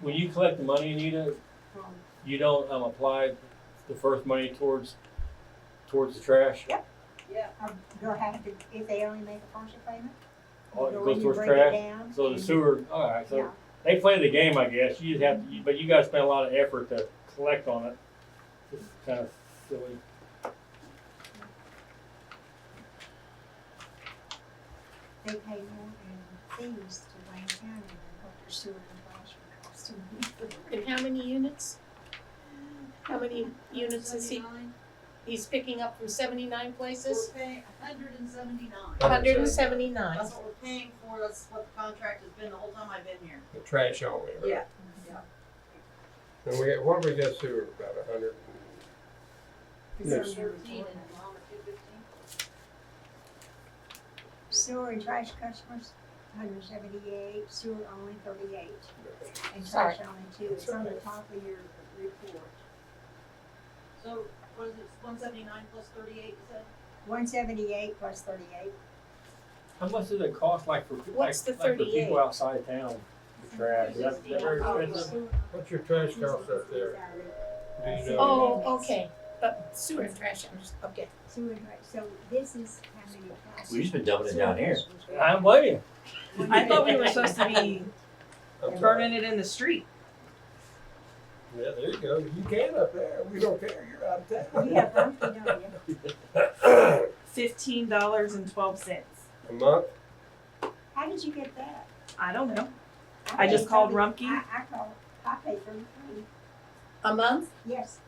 when you collect the money, Anita, you don't, um, apply the first money towards, towards the trash? Yep. Yeah. Or You'll have to, if they only make a partial payment? Oh, it you'll- goes you towards bring it trash? down So the and- sewer, alright, so Yeah. they play the game, I guess, you just have, to- but you guys spend a lot of effort to collect on it. It's kind of silly. They pay more in fees to Wayne County than what their sewer and trash would cost to And how many units? How many units is he, Seventy-nine. he's picking up from seventy-nine places? We're paying hundred and seventy-nine. Hundred and seventy-nine. That's what we're paying for, that's what the contract has been the whole time I've been here. the trash only, right? Yeah. And we, what have we got sewer, about a hundred, Yes. Thirteen and Obama two fifteen. Sewer and trash customers, hundred and seventy-eight, sewer only thirty-eight, and Sorry. trash only two, it's on the top of your report. So what is it, one seventy-nine plus thirty-eight, is that? One seventy-eight plus thirty-eight, How much does it cost, like for, like, What's the like for 38? people outside town, the trash, is that, is that Oh, very $2.60. expensive? what's your trash cost up there? Do you know? Oh, okay, but sewer and trash, I'm just, okay. sewer and trash, so this is how many trash. We've just been dumping it down here. I'm waiting. I thought we were supposed to be I'm sorry. burning it in the street. Yeah, there you go, you can up there, we don't care, you're out of town. Yeah, Humpty, don't you? Fifteen dollars and twelve cents. A month, How did you get that? I don't know. I just paid called thirty- Rumpke. I, I called, I paid thirty-three, A month? yes,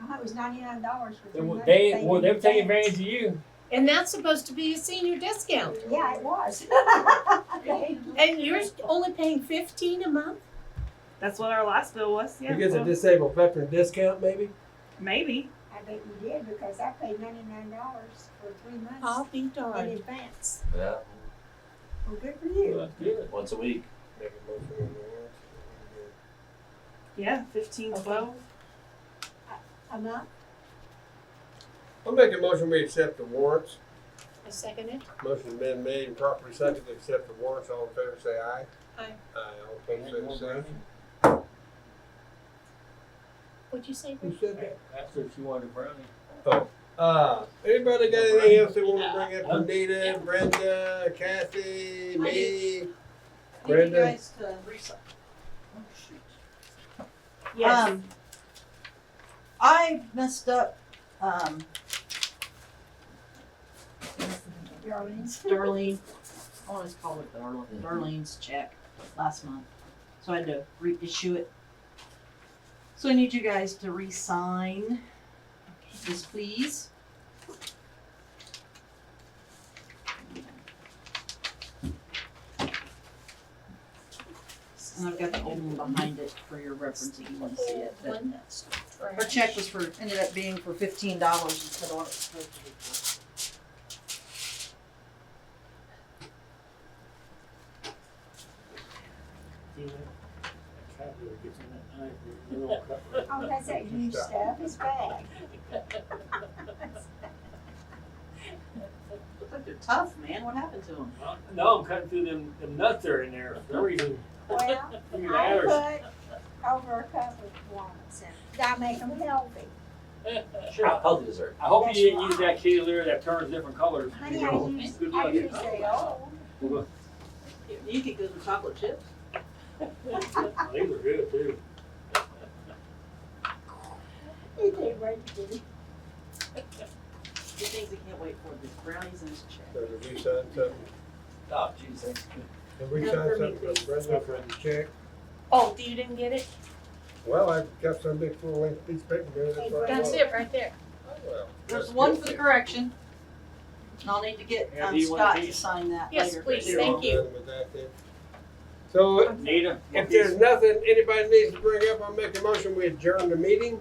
uh-huh, it was ninety-nine dollars for They, three months. they, well, they're didn't taking pay it. advantage of you. And that's supposed to be a senior discount. Yeah, it was. They- And you're only paying fifteen a month? That's what our last bill was. you Yeah. get the well, disabled veteran discount maybe? maybe. I bet you did, because I paid ninety-nine dollars for three I'll months be in darned. advance, Yeah, well, good for Well, you. That's good. once a week. Make a motion on that. Yeah, fifteen, Okay. twelve. A month? I'll make a motion, we accept the warrants, I second it. motion's been made and properly seconded, to accept the warrants, all in favor say aye. Aye. Aye, all opposed say the same. What'd you say? Who said that? That's what you wanted, brownie. Uh, anybody got anything else they wanna bring up, Anita, Brenda, Kathy, I me? I need you Brenda? guys to reach. Oh, shoot. Yes. Um, I messed up, um. Darlene's. Darlene, I always call it Darlene, Mhm. Darlene's check last month, so I had to reissue it. So I need you guys to re-sign this, please. And I've got the old one behind it for your reference if you wanna see it, but- One her check was for, ended up being for fifteen dollars instead of what it was supposed to be for. Oh, that's that huge stuff, it's bad. Looks like they're tough, man, what happened to them? No, I'm cutting through them, them nuts that are in there for no reason. Well, Figured out I put over a couple of ones, and I make them healthy. or- Sure, I'll Uh, probably dessert. I hope you didn't use that kitty that turns different colors. Honey, I use, Good I luck. use the old. You could go to chocolate chips. These are good too. It did work, did it? Two things I can't wait for, this brownies and this check. Did we sign something? Oh, geez, thanks. Did we No, sign for me, something please. from Brenda for the check? Oh, you didn't get it? Well, I've got some big full length piece of paper there, that's why. I That's want it right there. Oh, well, There's that's one good. for the correction. And I'll need to get, Yeah, do um, you want Scott to these? sign that later. Yes, please, You're thank all you. done with that then? So Nita? if there's nothing anybody needs to bring up, I'll make a motion, we adjourn the meeting.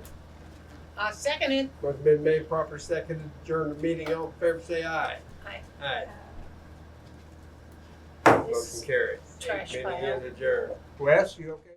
I second it. Motion been made, proper second, adjourn the meeting, all in favor say aye. Aye. Aye, This motion carried. trash Uh, Meeting pile. is adjourned. Wes, you okay?